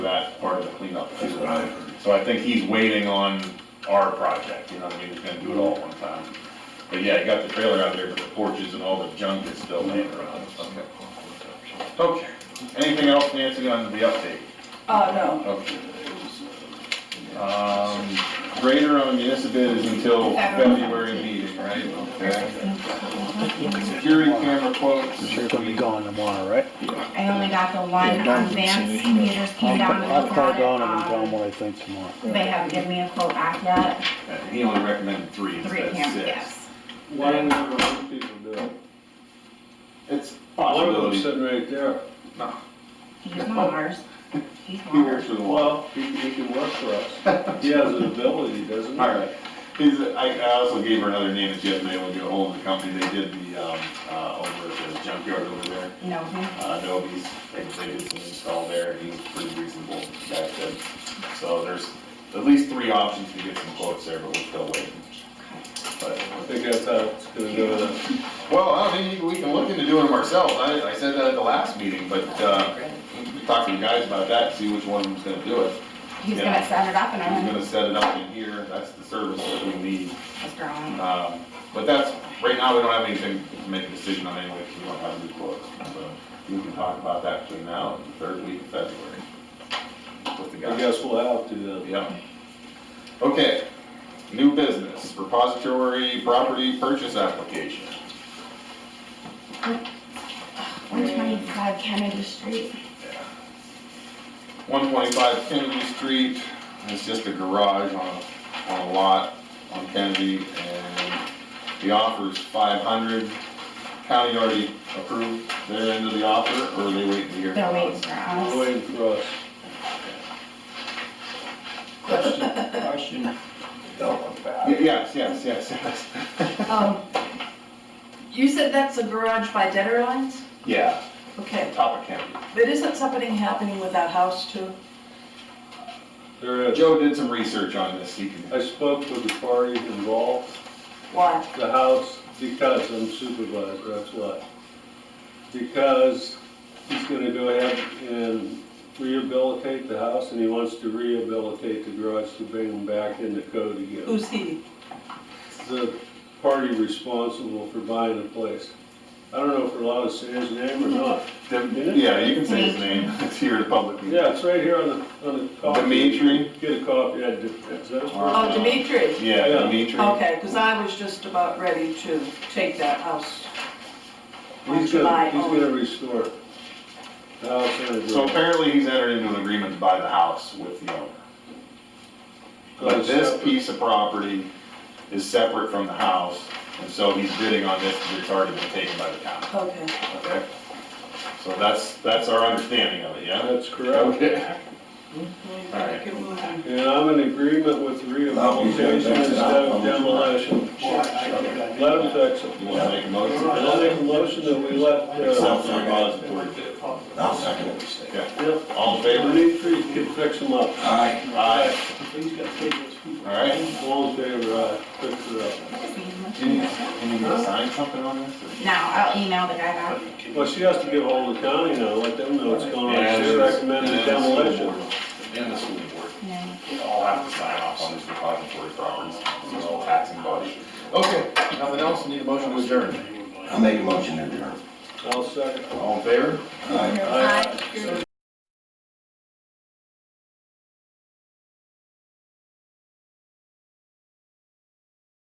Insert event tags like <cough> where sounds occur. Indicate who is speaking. Speaker 1: that part of the cleanup too.
Speaker 2: That's what I heard.
Speaker 1: So I think he's waiting on our project, you know, what I mean, he's gonna do it all at one time. But yeah, he got the trailer out there, but the porches and all the junk is still laying around. Okay, anything else, Nancy, on the update?
Speaker 3: Oh,
Speaker 4: Uh, no,
Speaker 1: Okay. Um, grader on municipal is until February meeting, right? Okay. Security camera quotes.
Speaker 5: Sure gonna be gone tomorrow, right?
Speaker 3: I only got the one
Speaker 2: Yeah,
Speaker 3: on
Speaker 2: Donovan's
Speaker 3: Vance,
Speaker 2: seen it.
Speaker 3: he just came down and
Speaker 5: I'll
Speaker 3: looked
Speaker 5: call
Speaker 3: at it.
Speaker 5: Don and tell him
Speaker 3: Um,
Speaker 5: what I think tomorrow.
Speaker 3: They haven't given me a quote back yet,
Speaker 1: He only recommended three
Speaker 3: three
Speaker 1: instead of
Speaker 3: cameras,
Speaker 1: six.
Speaker 3: yes.
Speaker 6: Why don't other people do it?
Speaker 1: It's
Speaker 6: One of them
Speaker 1: possibility.
Speaker 6: sitting right there.
Speaker 3: He's not ours, he's
Speaker 1: He works
Speaker 3: ours.
Speaker 1: for the law.
Speaker 6: Well, he, he can work for <laughs> us. He has an ability, doesn't he?
Speaker 1: All right. He's, I, I also gave her another name that she hasn't been able to get ahold of the company. They did the, um, uh, over at the junkyard over there.
Speaker 3: No, he-
Speaker 1: Uh, Adobe's, they, they did some install there. He's pretty reasonable, that said. So there's at least three options to get some quotes there, but we're still waiting. But,
Speaker 6: I think that's how it's gonna go then.
Speaker 1: well, I don't think we can look into doing them ourselves. I, I said that at the last meeting, but, uh, we can talk to you guys about that, see which one of them's gonna do it.
Speaker 3: he's
Speaker 1: Yeah.
Speaker 3: gonna set it up and
Speaker 1: Who's
Speaker 3: I'm
Speaker 1: gonna set it up in here? That's the service that we need.
Speaker 3: just drawing.
Speaker 1: Um, But that's, right now, we don't have anything to make a decision on anyway, because we don't have new quotes. So we can talk about that between now and the third week of February. With the
Speaker 6: I
Speaker 1: guys.
Speaker 6: guess we'll have to then.
Speaker 1: Yeah. Okay, new business, repository property purchase application.
Speaker 3: One twenty-five Kennedy Street,
Speaker 1: One twenty-five Kennedy Street, it's just a garage on, a- on a lot on Kennedy, and the offer is five hundred. County already approved their end of the offer, or are they waiting to hear?
Speaker 3: they're
Speaker 7: Oh,
Speaker 1: from
Speaker 3: waiting
Speaker 1: us?
Speaker 3: for
Speaker 6: We're
Speaker 3: us.
Speaker 6: waiting for us.
Speaker 2: Question.
Speaker 1: Y- Yes, yes, yes, yes. <laughs>
Speaker 7: Um, You said that's a garage by Dedder Lines?
Speaker 1: Yeah,
Speaker 7: Okay,
Speaker 1: top of Kennedy.
Speaker 7: but isn't something happening with that house too?
Speaker 6: There is,
Speaker 1: Joe did some research on this, he can,
Speaker 6: I spoke with the parties involved,
Speaker 7: Why?
Speaker 6: the house, because I'm supervisor, that's why. Because he's gonna go ahead and rehabilitate the house, and he wants to rehabilitate the garage to bring them back into code again.
Speaker 7: Who's he?
Speaker 6: the party responsible for buying the place. I don't know if we're allowed to say his name or not.
Speaker 1: yeah, you can say his name, <laughs> it's here to public. meeting.
Speaker 6: Yeah, it's right here on the, on the copy.
Speaker 1: Dimitri?
Speaker 6: Get a copy, yeah, that's, that's.
Speaker 1: Alright.
Speaker 7: Oh, Dimitri.
Speaker 1: Yeah,
Speaker 6: Yeah.
Speaker 1: Dimitri.
Speaker 7: Okay, because I was just about ready to take that house. on
Speaker 6: He's gonna,
Speaker 7: July
Speaker 6: he's
Speaker 7: only.
Speaker 6: gonna restore it. The house and the
Speaker 1: So
Speaker 6: garage.
Speaker 1: apparently he's entered into an agreement to buy the house with the owner. But this piece of property is separate from the house, and so he's bidding on this because it's already been taken by the town,
Speaker 7: Okay.
Speaker 1: okay? So that's, that's our understanding of it, yeah?
Speaker 6: That's correct.
Speaker 1: Okay. All right.
Speaker 7: Alright.
Speaker 6: And I'm in agreement with rehabilitation instead of demolition. Let them fix it.
Speaker 1: You wanna make a motion?
Speaker 6: And I'll make a motion that we let,
Speaker 1: Accept the
Speaker 6: uh,
Speaker 1: repository bid.
Speaker 2: I'll second it.
Speaker 1: Okay,
Speaker 6: yep,
Speaker 1: all in favor?
Speaker 6: Dimitri can fix them up.
Speaker 2: Aye.
Speaker 1: Aye. All right.
Speaker 6: All in favor, aye, uh, fix it up.
Speaker 1: Can you, can you sign something on this? or-
Speaker 3: Now, I'll email the guy back.
Speaker 6: Well, she has to give hold of the county now, let them know what's going on,
Speaker 1: And-
Speaker 6: she recommended
Speaker 1: and the school
Speaker 6: demolition.
Speaker 1: board. And the school board.
Speaker 3: Yeah.
Speaker 1: We all have to sign off on these repository properties, it's all taxing body. Okay, nothing else, need a motion to adjourn.
Speaker 2: I'll make a motion to adjourn.
Speaker 6: I'll second.
Speaker 1: All in favor?
Speaker 2: Aye.
Speaker 3: Aye.